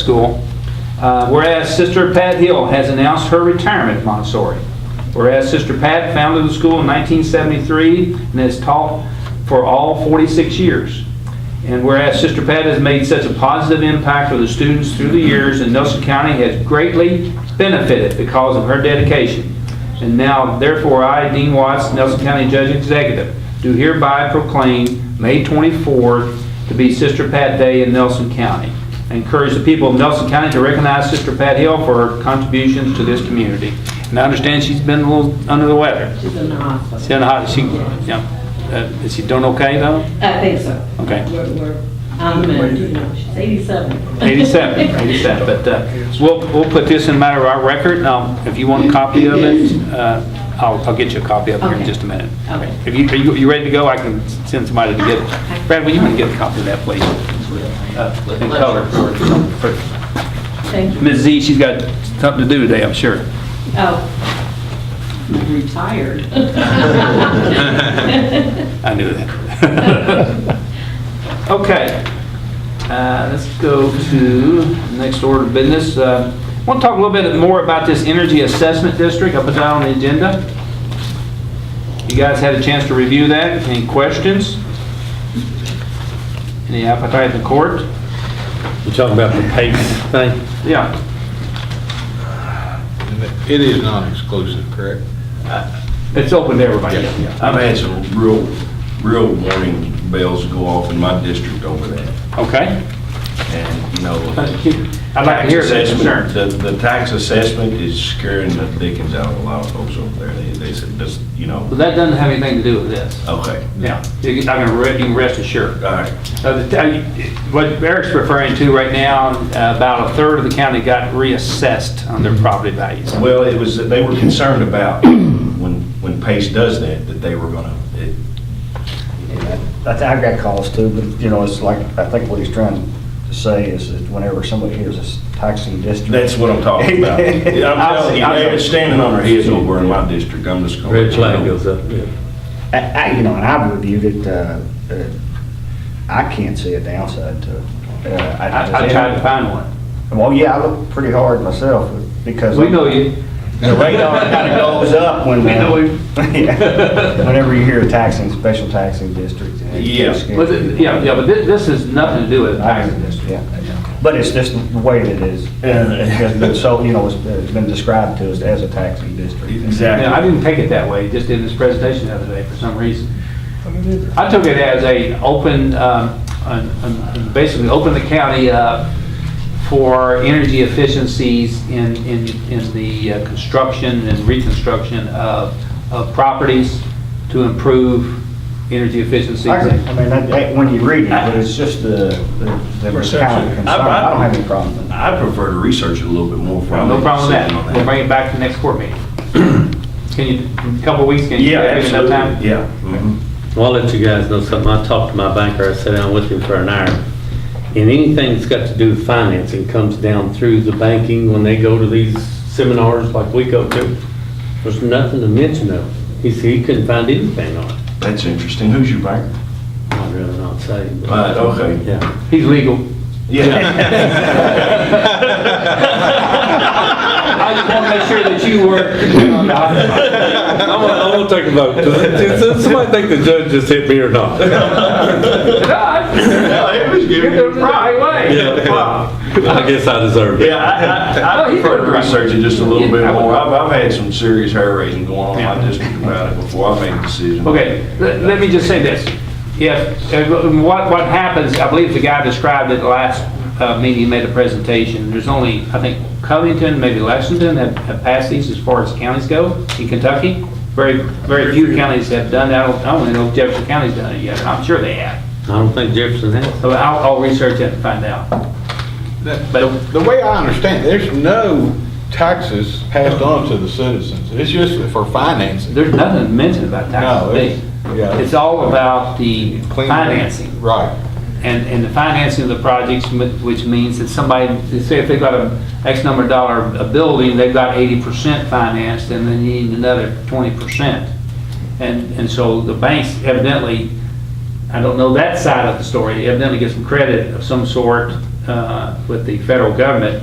School. Uh, Whereas Sister Pat Hill has announced her retirement at Montessori. Whereas Sister Pat founded the school in 1973 and has taught for all 46 years. And whereas Sister Pat has made such a positive impact with the students through the years, and Nelson County has greatly benefited because of her dedication. And now, therefore, I, Dean Watts, Nelson County Judge Executive, do hereby proclaim May 24th to be Sister Pat Day in Nelson County. I Encourage the people of Nelson County to recognize Sister Pat Hill for her contributions to this community. And I understand she's been a little under the weather. She's in the hospital. She, had a hot- she- yeah. Uh, is she doing okay though? I think so. Okay. We're, we're, I'm, you know, she's 87. 87, 87, but uh, we'll, we'll put this in matter of our record. Now, if you want a copy of it, uh, I'll, I'll get you a copy of it here in Okay. just a minute. Okay. If you, are you, you ready to go? I can send somebody to get it. Brad, will you want to get a copy of that, please? Uh, In color. for- for- Thank you. Ms. Z, she's got something to do today, I'm sure. Oh, I'm retired. Thank I knew that. Okay, uh, let's go to next order of business. Uh, I want to talk a little bit more about this energy assessment district, I put that on the agenda. You guys had a chance to review that, any questions? Any appetite in court? You talking about the PACE thing? Yeah, It is non-exclusive, correct? it's open to everybody. Yeah, I've had some real, real warning bells go off in my district over that. Okay. And, you know. I'd like to hear that concern. The, the tax assessment is scaring the dickens out of a lot of folks over there. They, they said, this, you But know, that doesn't have anything to do with this. okay, Yeah, you can, I can re- you can rest assured. all right. Uh, the- uh, What Eric's referring to right now, uh, about a third of the county got reassessed on their property values. Well, it was, that they were concerned about when, when Pace does that, that they were gonna, it, I think I've got calls too, but, you know, it's like, I think what he's trying to say is that whenever somebody hears this taxing district. that's what I'm talking about. I'm telling you, they're standing on their heads over in my district. I'm just gonna. Red flag goes up, yeah. I, I, you know, and I've reviewed it, uh, uh, I can't see a downside to it. Uh, I I tried to find one. Well, yeah, I look pretty hard myself because. We know you. The radar kind of goes up when. uh, We know you. Yeah. Whenever you hear a taxing, special taxing district. and it's Yeah. scary. But th- Yeah, yeah, but thi- this has nothing to do with I taxing agree district. yeah. But it's just the way that it is, and it has been so, you know, it's- it's been described to us as a taxing district. Exactly. Yeah, I didn't take it that way, just in this presentation the other day for some reason. I took it as a open, um, an- an- basically open the county up for energy efficiencies in, in, in the uh, construction and reconstruction of, of properties to improve energy efficiencies. I agree. I mean, that- that- when you read it, but it's just the, the the Perception. county concern, I don't have any problem with that. I prefer to research it a little bit more. before I No make a problem with decision that. on We'll bring it back to the next court meeting. Can you, in a couple of weeks, can you? Yeah, give me enough absolutely, time? yeah. mhm. Well, I'll let you guys know something. I talked to my banker, I sat down with him for an hour. And anything that's got to do with financing comes down through the banking when they go to these seminars like we go to. There's nothing to mention of. He said he couldn't find anything on it. That's interesting. Who's your bank? I'd rather not say. but- Right, okay. Yeah. He's legal. I just want to make sure that you were. I want, I want to take a vote. Does, does somebody think the judge just hit me or not? No, it was You're giving doing it the you- right way. I guess I deserve it. Yeah, I, I, I prefer to research it just a little bit more. I've, I've had some serious hair raising going on in my district about it before I made a decision. Okay, let let me just say this. If, if- what, what happens, I believe the guy described it last uh, meeting, he made a presentation. There's only, I think Covington, maybe Lexington have have passed these as far as counties go in Kentucky. Very, very few counties have done that. I don't- I don't know if Jefferson County's done it yet. I'm sure they have. I don't think Jefferson has. So I'll, I'll research it and find out. The the way I understand, it, there's no taxes passed on to the citizens. It's just for financing. There's nothing mentioned about No, taxes. it's- yeah. It's all about the Clean- financing. Right. and, and the financing of the projects, m- which means that somebody, say if they've got a X number of dollar a building, they've got eighty percent financed, and then you need another twenty percent. And, and so the banks evidently, I don't know that side of the story, evidently get some credit of some sort uh, with the federal government